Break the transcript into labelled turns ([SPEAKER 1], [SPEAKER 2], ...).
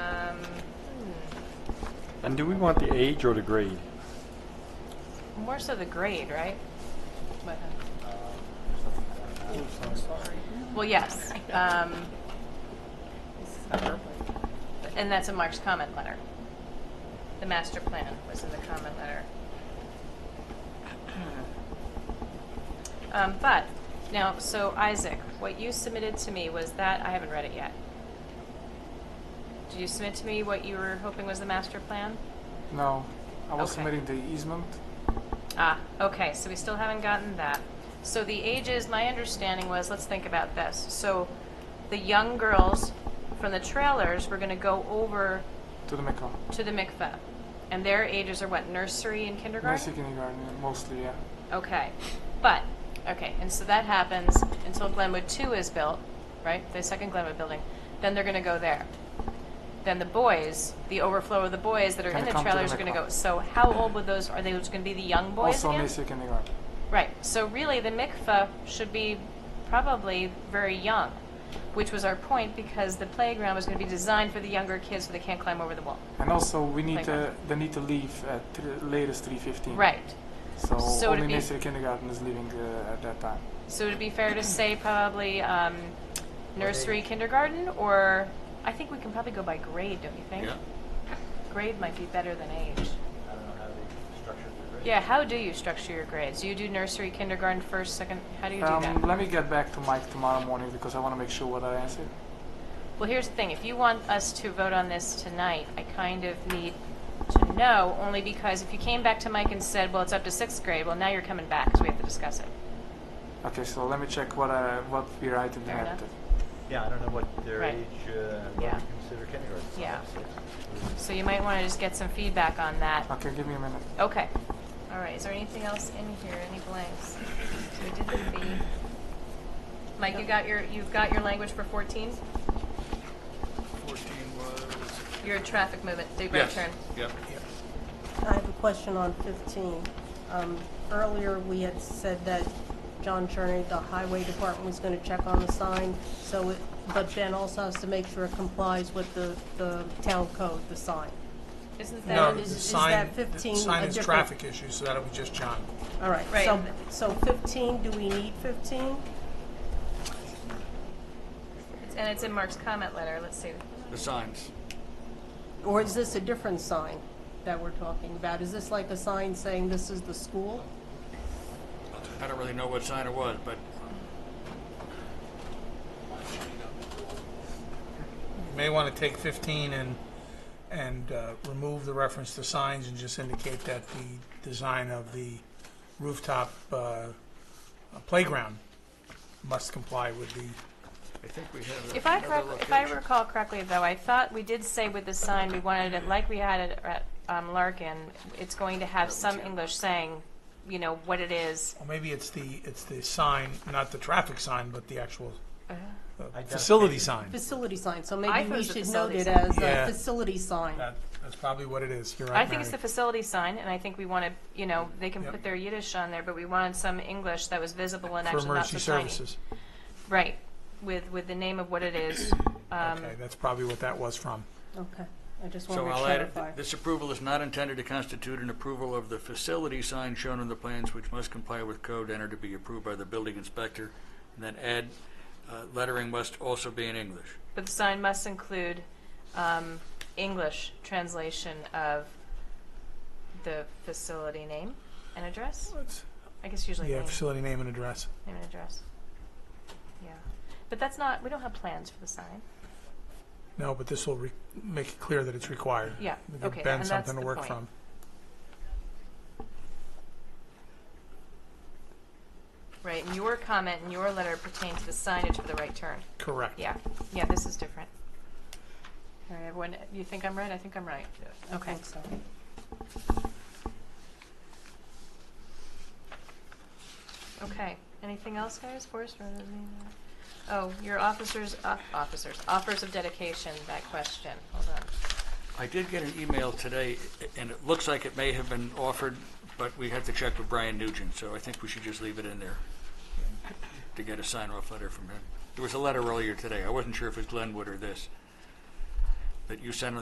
[SPEAKER 1] Um,
[SPEAKER 2] And do we want the age or the grade?
[SPEAKER 1] More so the grade, right? But, uh, Well, yes. um, And that's in Mark's comment letter. The master plan was in the comment letter. Um, But, now, so Isaac, what you submitted to me was that, I haven't read it yet. Did you submit to me what you were hoping was the master plan?
[SPEAKER 3] No, I was
[SPEAKER 1] Okay.
[SPEAKER 3] submitting the easement.
[SPEAKER 1] Ah, okay, so we still haven't gotten that. So the ages, my understanding was, let's think about this. So the young girls from the trailers were going to go over
[SPEAKER 3] to the Mekong.
[SPEAKER 1] to the mikveh. And their ages are what, nursery and kindergarten?
[SPEAKER 3] Mostly kindergarten, mostly, yeah.
[SPEAKER 1] Okay, but, okay, and so that happens until Glenwood Two is built, right? The second Glenwood building, then they're gonna go there. Then the boys, the overflow of the boys that are in
[SPEAKER 3] Gonna
[SPEAKER 1] the
[SPEAKER 3] come to the
[SPEAKER 1] trailers are gonna go,
[SPEAKER 3] mikvah.
[SPEAKER 1] so how old would those, are they just gonna be the young boys
[SPEAKER 3] also,
[SPEAKER 1] again?
[SPEAKER 3] mostly kindergarten.
[SPEAKER 1] Right. So really, the mikveh should be probably very young, which was our point because the playground was going to be designed for the younger kids so they can't climb over the wall.
[SPEAKER 3] And also, we need to,
[SPEAKER 1] Playground.
[SPEAKER 3] they need to leave at th- latest 3.15.
[SPEAKER 1] Right.
[SPEAKER 3] So,
[SPEAKER 1] So it'd
[SPEAKER 3] only
[SPEAKER 1] be-
[SPEAKER 3] mostly kindergarten is leaving uh, at that time.
[SPEAKER 1] So it'd be fair to say probably um, nursery, kindergarten, or I think we can probably go by grade, don't you think?
[SPEAKER 4] Yeah.
[SPEAKER 1] Grade might be better than age.
[SPEAKER 5] I don't know how they structured the grade.
[SPEAKER 1] Yeah. How do you structure your grades? Do you do nursery, kindergarten first, second? How do you do that?
[SPEAKER 3] um, let me get back to Mike tomorrow morning because I want to make sure what I answered.
[SPEAKER 1] Well, here's the thing, if you want us to vote on this tonight, I kind of need to know, only because if you came back to Mike and said, well, it's up to sixth grade, well, now you're coming back, because we have to discuss it.
[SPEAKER 3] Okay, so let me check what I, what we write in the
[SPEAKER 1] Fair enough.
[SPEAKER 3] narrative.
[SPEAKER 5] Yeah, I don't know what their
[SPEAKER 1] Right.
[SPEAKER 5] age, uh, what we
[SPEAKER 1] Yeah.
[SPEAKER 5] consider kindergarten. so
[SPEAKER 1] Yeah.
[SPEAKER 5] it's-
[SPEAKER 1] So you might want to just get some feedback on that.
[SPEAKER 3] Okay, give me a minute.
[SPEAKER 1] Okay. All right, is there anything else in here, any blanks? So we did the B. Mike, you got your, you've got your language for 14?
[SPEAKER 4] 14 was.
[SPEAKER 1] Your traffic movement, big right turn.
[SPEAKER 4] Yep.
[SPEAKER 6] I have a question on 15. Um, Earlier, we had said that John Cherney, the highway department, was going to check on the sign, so it, but Ben also has to make sure it complies with the, the town code, the sign.
[SPEAKER 1] Isn't that?
[SPEAKER 7] No,
[SPEAKER 6] is-
[SPEAKER 7] the
[SPEAKER 6] is
[SPEAKER 7] sign,
[SPEAKER 6] that
[SPEAKER 7] the
[SPEAKER 6] 15
[SPEAKER 7] sign
[SPEAKER 6] a
[SPEAKER 7] is
[SPEAKER 6] different-
[SPEAKER 7] traffic issue, so that'll be just John.
[SPEAKER 6] All right,
[SPEAKER 1] Right.
[SPEAKER 6] so, so 15, do we need 15?
[SPEAKER 1] And it's in Mark's comment letter, let's see.
[SPEAKER 4] The signs.
[SPEAKER 6] Or is this a different sign that we're talking about? Is this like a sign saying this is the school?
[SPEAKER 4] I don't really know what sign it was, but
[SPEAKER 7] You may want to take 15 and, and uh, remove the reference to signs and just indicate that the design of the rooftop uh, playground must comply with the,
[SPEAKER 4] I think we have.
[SPEAKER 1] If I,
[SPEAKER 4] another
[SPEAKER 1] correct, if I
[SPEAKER 4] location.
[SPEAKER 1] recall correctly, though, I thought we did say with the sign, we wanted it, like we had it at um, Larkin, it's going to have some English saying, you know, what it is.
[SPEAKER 7] or maybe it's the, it's the sign, not the traffic sign, but the actual uh,
[SPEAKER 1] Uh-huh.
[SPEAKER 7] facility
[SPEAKER 5] Identification.
[SPEAKER 7] sign.
[SPEAKER 6] Facility sign, so
[SPEAKER 1] I
[SPEAKER 6] maybe
[SPEAKER 1] thought it
[SPEAKER 6] we
[SPEAKER 1] was a
[SPEAKER 6] should note
[SPEAKER 1] facility
[SPEAKER 6] it
[SPEAKER 1] sign.
[SPEAKER 6] as
[SPEAKER 7] Yeah.
[SPEAKER 6] a facility sign.
[SPEAKER 7] That, that's probably what it is. You're right,
[SPEAKER 1] I think it's the
[SPEAKER 7] Mary.
[SPEAKER 1] facility sign, and I think we wanted, you know, they can
[SPEAKER 7] Yep.
[SPEAKER 1] put their Yiddish on there, but we wanted some English that was visible and
[SPEAKER 7] For
[SPEAKER 1] actually not
[SPEAKER 7] emergency
[SPEAKER 1] so tiny.
[SPEAKER 7] services.
[SPEAKER 1] Right, with, with the name of what it is. Um,
[SPEAKER 7] Okay, that's probably what that was from.
[SPEAKER 6] Okay, I just want
[SPEAKER 4] So
[SPEAKER 6] to
[SPEAKER 4] I'll add,
[SPEAKER 6] clarify.
[SPEAKER 4] this approval is not intended to constitute an approval of the facility sign shown on the plans, which must comply with code and are to be approved by the building inspector. And then add, uh, lettering must also be in English.
[SPEAKER 1] But the sign must include um, English translation of the facility name and address? I guess usually
[SPEAKER 7] Yeah,
[SPEAKER 1] name,
[SPEAKER 7] facility name and address.
[SPEAKER 1] name and address. Yeah. But that's not, we don't have plans for the sign.
[SPEAKER 7] No, but this will re- make it clear that it's required.
[SPEAKER 1] Yeah,
[SPEAKER 7] We give
[SPEAKER 1] okay,
[SPEAKER 7] Ben
[SPEAKER 1] and that's
[SPEAKER 7] something to
[SPEAKER 1] the
[SPEAKER 7] work
[SPEAKER 1] point.
[SPEAKER 7] from.
[SPEAKER 1] Right, and your comment and your letter pertain to the signage for the right turn.
[SPEAKER 7] Correct.
[SPEAKER 1] Yeah, yeah, this is different. All right, everyone, you think I'm right? I think I'm right.
[SPEAKER 5] Yes.
[SPEAKER 1] Okay.
[SPEAKER 6] think so.
[SPEAKER 1] Okay, anything else, guys? Forest Road, I mean, uh, oh, your officers, uh, officers, offers of dedication, that question, hold on.
[SPEAKER 4] I did get an email today, and it looks like it may have been offered, but we had to check with Brian Nugent, so I think we should just leave it in there to get a sign-off letter from him. There was a letter earlier today, I wasn't sure if it was Glenwood or this, that you sent on